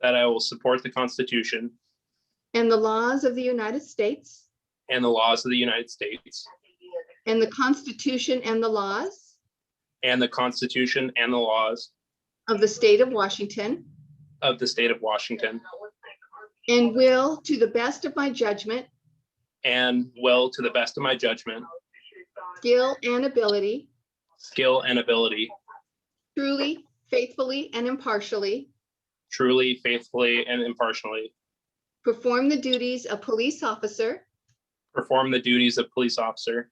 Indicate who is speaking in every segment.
Speaker 1: that I will support the Constitution
Speaker 2: and the laws of the United States
Speaker 1: and the laws of the United States
Speaker 2: and the Constitution and the laws
Speaker 1: and the Constitution and the laws
Speaker 2: of the state of Washington
Speaker 1: of the state of Washington
Speaker 2: and will, to the best of my judgment,
Speaker 1: and will, to the best of my judgment,
Speaker 2: skill, and ability,
Speaker 1: skill, and ability,
Speaker 2: truly, faithfully, and impartially,
Speaker 1: truly, faithfully, and impartially,
Speaker 2: perform the duties of police officer
Speaker 1: perform the duties of police officer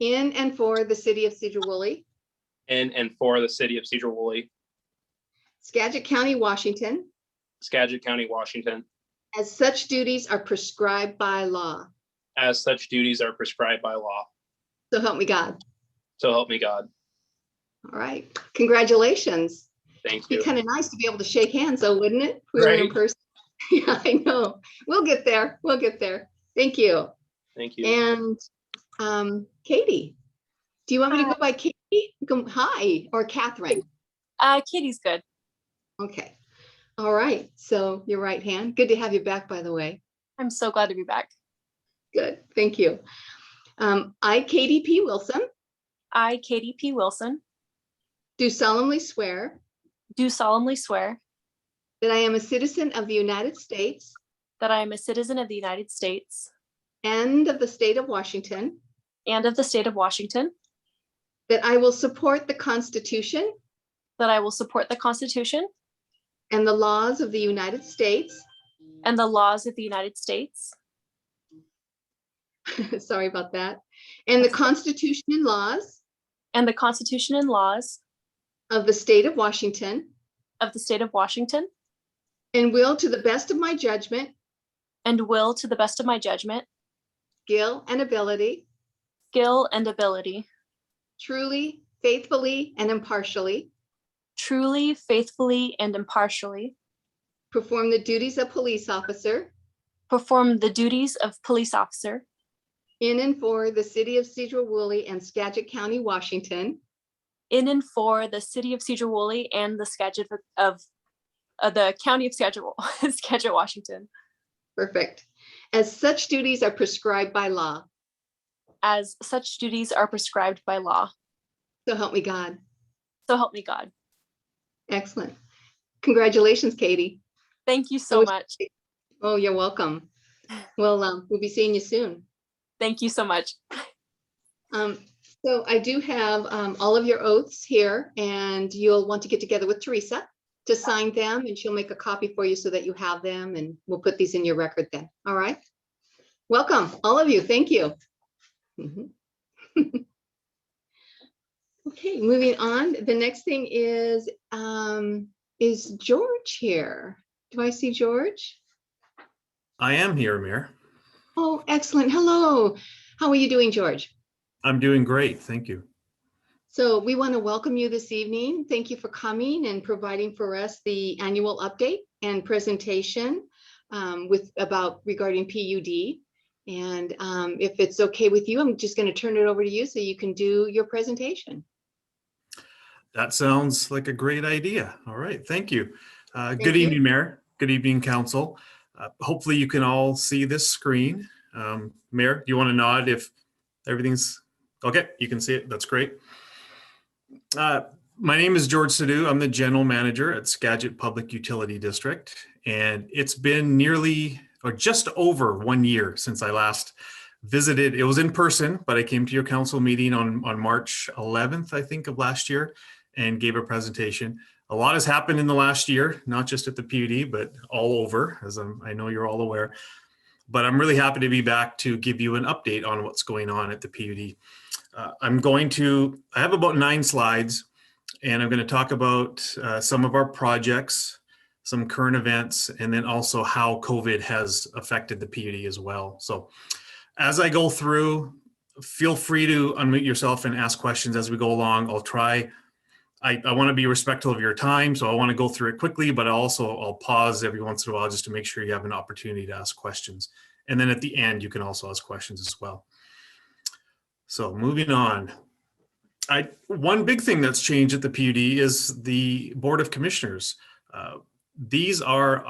Speaker 2: in and for the city of Cedar Woolley,
Speaker 1: in and for the city of Cedar Woolley,
Speaker 2: Skagit County, Washington,
Speaker 1: Skagit County, Washington,
Speaker 2: as such duties are prescribed by law.
Speaker 1: as such duties are prescribed by law.
Speaker 2: So help me God.
Speaker 1: So help me God.
Speaker 2: All right. Congratulations.
Speaker 1: Thank
Speaker 2: Be
Speaker 1: you.
Speaker 2: kind of nice to be able to shake hands, though, wouldn't it? If we were in
Speaker 1: Right.
Speaker 2: person. Yeah, I know. We'll get there. We'll get there. Thank you.
Speaker 1: Thank you.
Speaker 2: And um, Katie, do you want me to go by Katie? Go- Hi, or Catherine?
Speaker 3: Uh, Kitty's good.
Speaker 2: Okay. All right. So your right hand. Good to have you back, by the way.
Speaker 3: I'm so glad to be back.
Speaker 2: Good. Thank you. Um, I, Katie P. Wilson,
Speaker 3: I, Katie P. Wilson,
Speaker 2: do solemnly swear
Speaker 3: do solemnly swear
Speaker 2: that I am a citizen of the United States
Speaker 3: that I am a citizen of the United States
Speaker 2: and of the state of Washington,
Speaker 3: and of the state of Washington,
Speaker 2: that I will support the Constitution
Speaker 3: that I will support the Constitution
Speaker 2: and the laws of the United States,
Speaker 3: and the laws of the United States
Speaker 2: sorry about that, and the Constitution and laws
Speaker 3: and the Constitution and laws
Speaker 2: of the state of Washington,
Speaker 3: of the state of Washington,
Speaker 2: and will, to the best of my judgment,
Speaker 3: and will, to the best of my judgment,
Speaker 2: skill, and ability,
Speaker 3: skill, and ability,
Speaker 2: truly, faithfully, and impartially,
Speaker 3: truly, faithfully, and impartially,
Speaker 2: perform the duties of police officer
Speaker 3: perform the duties of police officer
Speaker 2: in and for the city of Cedar Woolley and Skagit County, Washington,
Speaker 3: in and for the city of Cedar Woolley and the Skagit of, of the county of Skagit, Skagit, Washington,
Speaker 2: perfect, as such duties are prescribed by law.
Speaker 3: as such duties are prescribed by law.
Speaker 2: So help me God.
Speaker 3: So help me God.
Speaker 2: Excellent. Congratulations, Katie.
Speaker 3: Thank you
Speaker 2: So
Speaker 3: so
Speaker 2: it's-
Speaker 3: much.
Speaker 2: Oh, you're welcome. Well, um, we'll be seeing you soon.
Speaker 3: Thank you so much.
Speaker 2: Um, so I do have, um, all of your oaths here and you'll want to get together with Teresa to sign them and she'll make a copy for you so that you have them and we'll put these in your record then. All right. Welcome, all of you. Thank you. Mhm. Okay, moving on. The next thing is, um, is George here? Do I see George?
Speaker 4: I am here, Mayor.
Speaker 2: Oh, excellent. Hello. How are you doing, George?
Speaker 4: I'm doing great. Thank you.
Speaker 2: So we want to welcome you this evening. Thank you for coming and providing for us the annual update and presentation um, with about regarding PUD. And um, if it's okay with you, I'm just going to turn it over to you so you can do your presentation.
Speaker 4: That sounds like a great idea. All right, thank you. Uh,
Speaker 2: Thank
Speaker 4: Good
Speaker 2: you.
Speaker 4: evening, Mayor. Good evening, Council. Uh, Hopefully you can all see this screen.
Speaker 2: Mm-hmm.
Speaker 4: Um, Mayor, do you want to nod if everything's, okay, you can see it. That's great. Uh, My name is George Sadoo. I'm the General Manager at Skagit Public Utility District. And it's been nearly, or just over one year since I last visited. It was in person, but I came to your council meeting on, on March 11th, I think, of last year and gave a presentation. A lot has happened in the last year, not just at the PUD, but all over, as I'm, I know you're all aware. But I'm really happy to be back to give you an update on what's going on at the PUD. Uh, I'm going to, I have about nine slides, and I'm going to talk about uh, some of our projects, some current events, and then also how COVID has affected the PUD as well. So as I go through, feel free to unmute yourself and ask questions as we go along. I'll try. I, I want to be respectful of your time, so I want to go through it quickly, but I also I'll pause every once in a while just to make sure you have an opportunity to ask questions. And then at the end, you can also ask questions as well. So moving on. I one big thing that's changed at the PUD is the Board of Commissioners. Uh, these are